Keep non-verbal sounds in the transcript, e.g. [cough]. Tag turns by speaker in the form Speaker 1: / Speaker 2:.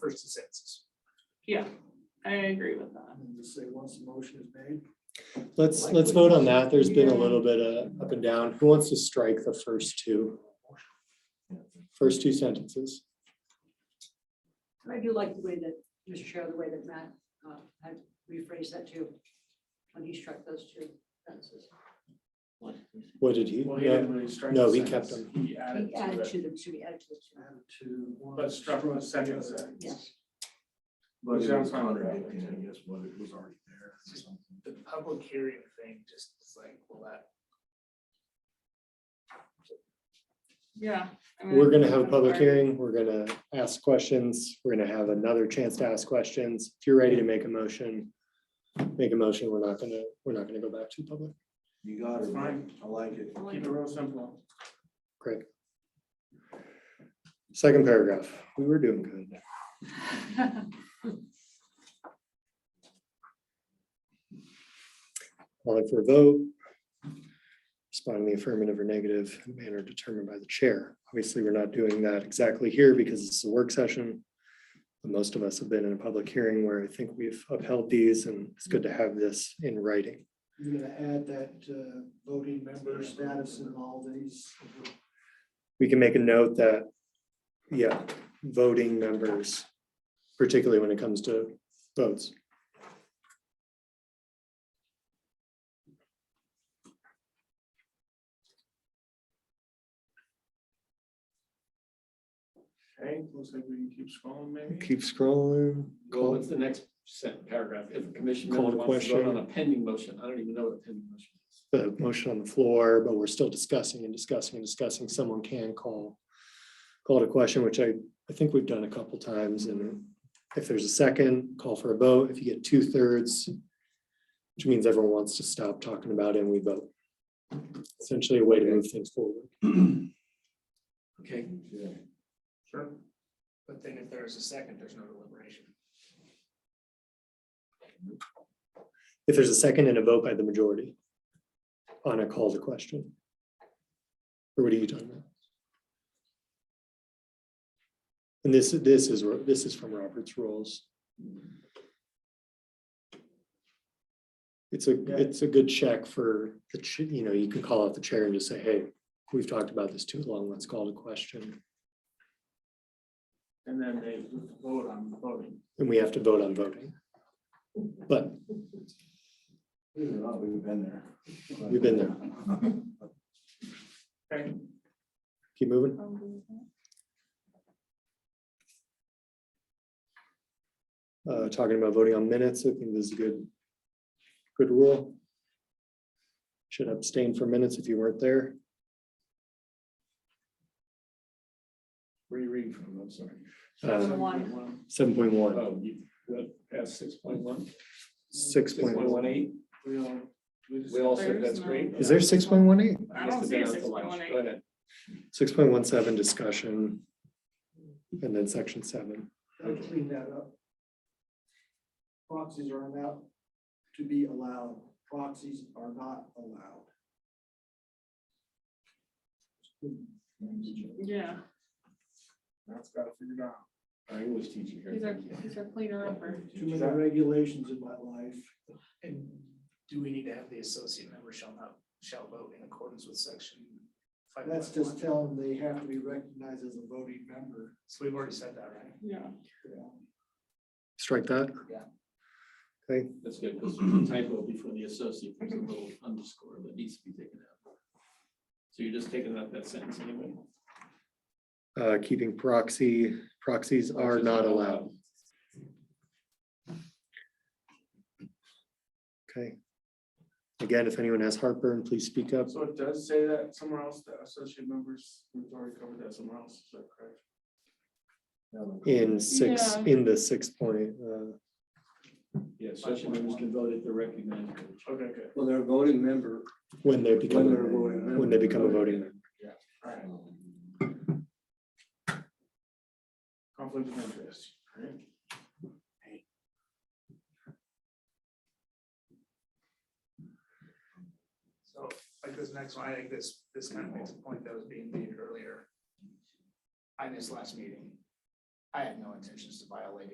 Speaker 1: first the census.
Speaker 2: Yeah, I agree with that.
Speaker 3: And just say, once the motion is made,
Speaker 4: Let's, let's vote on that. There's been a little bit of up and down. Who wants to strike the first two? First two sentences.
Speaker 5: I do like the way that, Mr. Chair, the way that Matt, uh, had rephrased that too. When he struck those two sentences.
Speaker 4: What did he?
Speaker 1: Well, he didn't really strike.
Speaker 4: No,
Speaker 1: the
Speaker 4: he kept
Speaker 1: sentence. He added
Speaker 5: He
Speaker 1: to
Speaker 5: added
Speaker 1: it,
Speaker 5: to them, should be added to the two.
Speaker 3: add it to one.
Speaker 1: but struck the second
Speaker 3: other.
Speaker 1: sentence.
Speaker 5: Yes,
Speaker 6: But
Speaker 1: Which
Speaker 6: it
Speaker 1: sounds
Speaker 6: was
Speaker 1: fine.
Speaker 6: contradicting, I guess, what it was already there. or something.
Speaker 1: The public hearing thing just is like, well, that.
Speaker 2: Yeah. I mean,
Speaker 4: We're
Speaker 2: I
Speaker 4: gonna
Speaker 2: think
Speaker 4: have a
Speaker 2: that's
Speaker 4: public
Speaker 2: fair.
Speaker 4: hearing. We're gonna ask questions. We're gonna have another chance to ask questions. If you're ready to make a motion, make a motion. We're not gonna, we're not gonna go back to public.
Speaker 6: You got
Speaker 1: It's
Speaker 6: it, man.
Speaker 1: fine.
Speaker 6: I like it.
Speaker 1: Keep it real simple.
Speaker 4: Second paragraph. We were doing good. Calling for a vote. Respond in the affirmative or negative in a manner determined by the chair. Obviously, we're not doing that exactly here because it's a work session. But Most of us have been in a public hearing where I think we've upheld these and it's good to have this in writing.
Speaker 3: You're gonna add that uh, voting member status in all these.
Speaker 4: We can make a note that, yeah, voting members, particularly when it comes to votes.
Speaker 1: Okay, looks like we can keep scrolling maybe.
Speaker 4: Keep scrolling.
Speaker 7: Well, what's the next sent paragraph? If a commission
Speaker 4: Call
Speaker 7: member
Speaker 4: to
Speaker 7: wants to vote on
Speaker 4: question.
Speaker 7: a pending motion, I don't even know what a pending motion is.
Speaker 4: the motion on the floor, but we're still discussing and discussing and discussing. Someone can call. Call to question, which I, I think we've done a couple times. And if there's a second, call for a vote. If you get two thirds, which means everyone wants to stop talking about it and we vote. Essentially a way to move things forward.
Speaker 7: Okay,
Speaker 6: Yeah.
Speaker 1: Sure. But then if there's a second, there's no deliberation.
Speaker 4: If there's a second and a vote by the majority on a call to question. Or what are you talking about? And this, this is, this is from Robert's rules. It's a, it's a good check for the, ch- you know, you can call out the chair and just say, hey, we've talked about this too long, let's call to question.
Speaker 1: And then they vote on voting.
Speaker 4: And we have to vote on voting. But
Speaker 6: Believe it or not, We've been there.
Speaker 4: We've been there.
Speaker 6: [laughs]
Speaker 1: Okay,
Speaker 4: keep moving. uh, talking about voting on minutes, I think this is a good, good rule. Should abstain for minutes if you weren't there.
Speaker 6: Where are you reading from? I'm sorry.
Speaker 4: Uh,
Speaker 2: One.
Speaker 4: Seven point one,
Speaker 7: oh, you, past six point one,
Speaker 4: six
Speaker 7: six
Speaker 4: point
Speaker 7: point
Speaker 4: one.
Speaker 7: one eight,
Speaker 1: we all, we just.
Speaker 7: we all said
Speaker 2: There's
Speaker 7: that's
Speaker 2: no-
Speaker 7: great.
Speaker 4: Is there six point one eight?
Speaker 2: I don't
Speaker 7: Must have
Speaker 2: see
Speaker 7: been
Speaker 2: a
Speaker 7: out to
Speaker 2: 6.18.
Speaker 7: lunch. Go ahead.
Speaker 4: Six point one seven discussion. And then section seven.
Speaker 3: I'll clean that up. Proxies are not to be allowed. Proxies are not allowed.
Speaker 2: Yeah,
Speaker 1: That's got to figure out.
Speaker 7: Our English teacher
Speaker 2: he's our,
Speaker 7: here.
Speaker 2: he's our cleaner upper.
Speaker 3: Too many regulations in my life.
Speaker 1: And do we need to have the associate member shall not, shall vote in accordance with section? five
Speaker 3: That's
Speaker 1: point
Speaker 3: just
Speaker 1: one?
Speaker 3: telling them they have to be recognized as a voting member.
Speaker 1: So we've already said that, right?
Speaker 2: Yeah,
Speaker 4: Strike that.
Speaker 7: That's good, because
Speaker 4: [clears throat]
Speaker 7: there's a typo before the associate, there's a little underscore that needs to be taken out. So you're just taking out that sentence anyway?
Speaker 4: Uh, keeping proxy, proxies are
Speaker 7: Proxies
Speaker 4: not allowed. Okay. Again, if anyone has heartburn, please speak up.
Speaker 1: So it does say that somewhere else, the associate members, we've already covered that somewhere else, is that correct?
Speaker 4: In six,
Speaker 2: Yeah.
Speaker 4: in the six point, uh,
Speaker 7: Yeah, associate members can vote if they're recognized.
Speaker 1: Okay, good,
Speaker 6: Well, they're a voting member. When
Speaker 4: when they
Speaker 6: they're a
Speaker 4: become,
Speaker 6: voting member.
Speaker 4: when they become a voting member.
Speaker 1: all right, conflict of interest, right? So like this next one, I think this, this kind of makes a point that was being made earlier. On this last meeting. I have no intentions to violate it.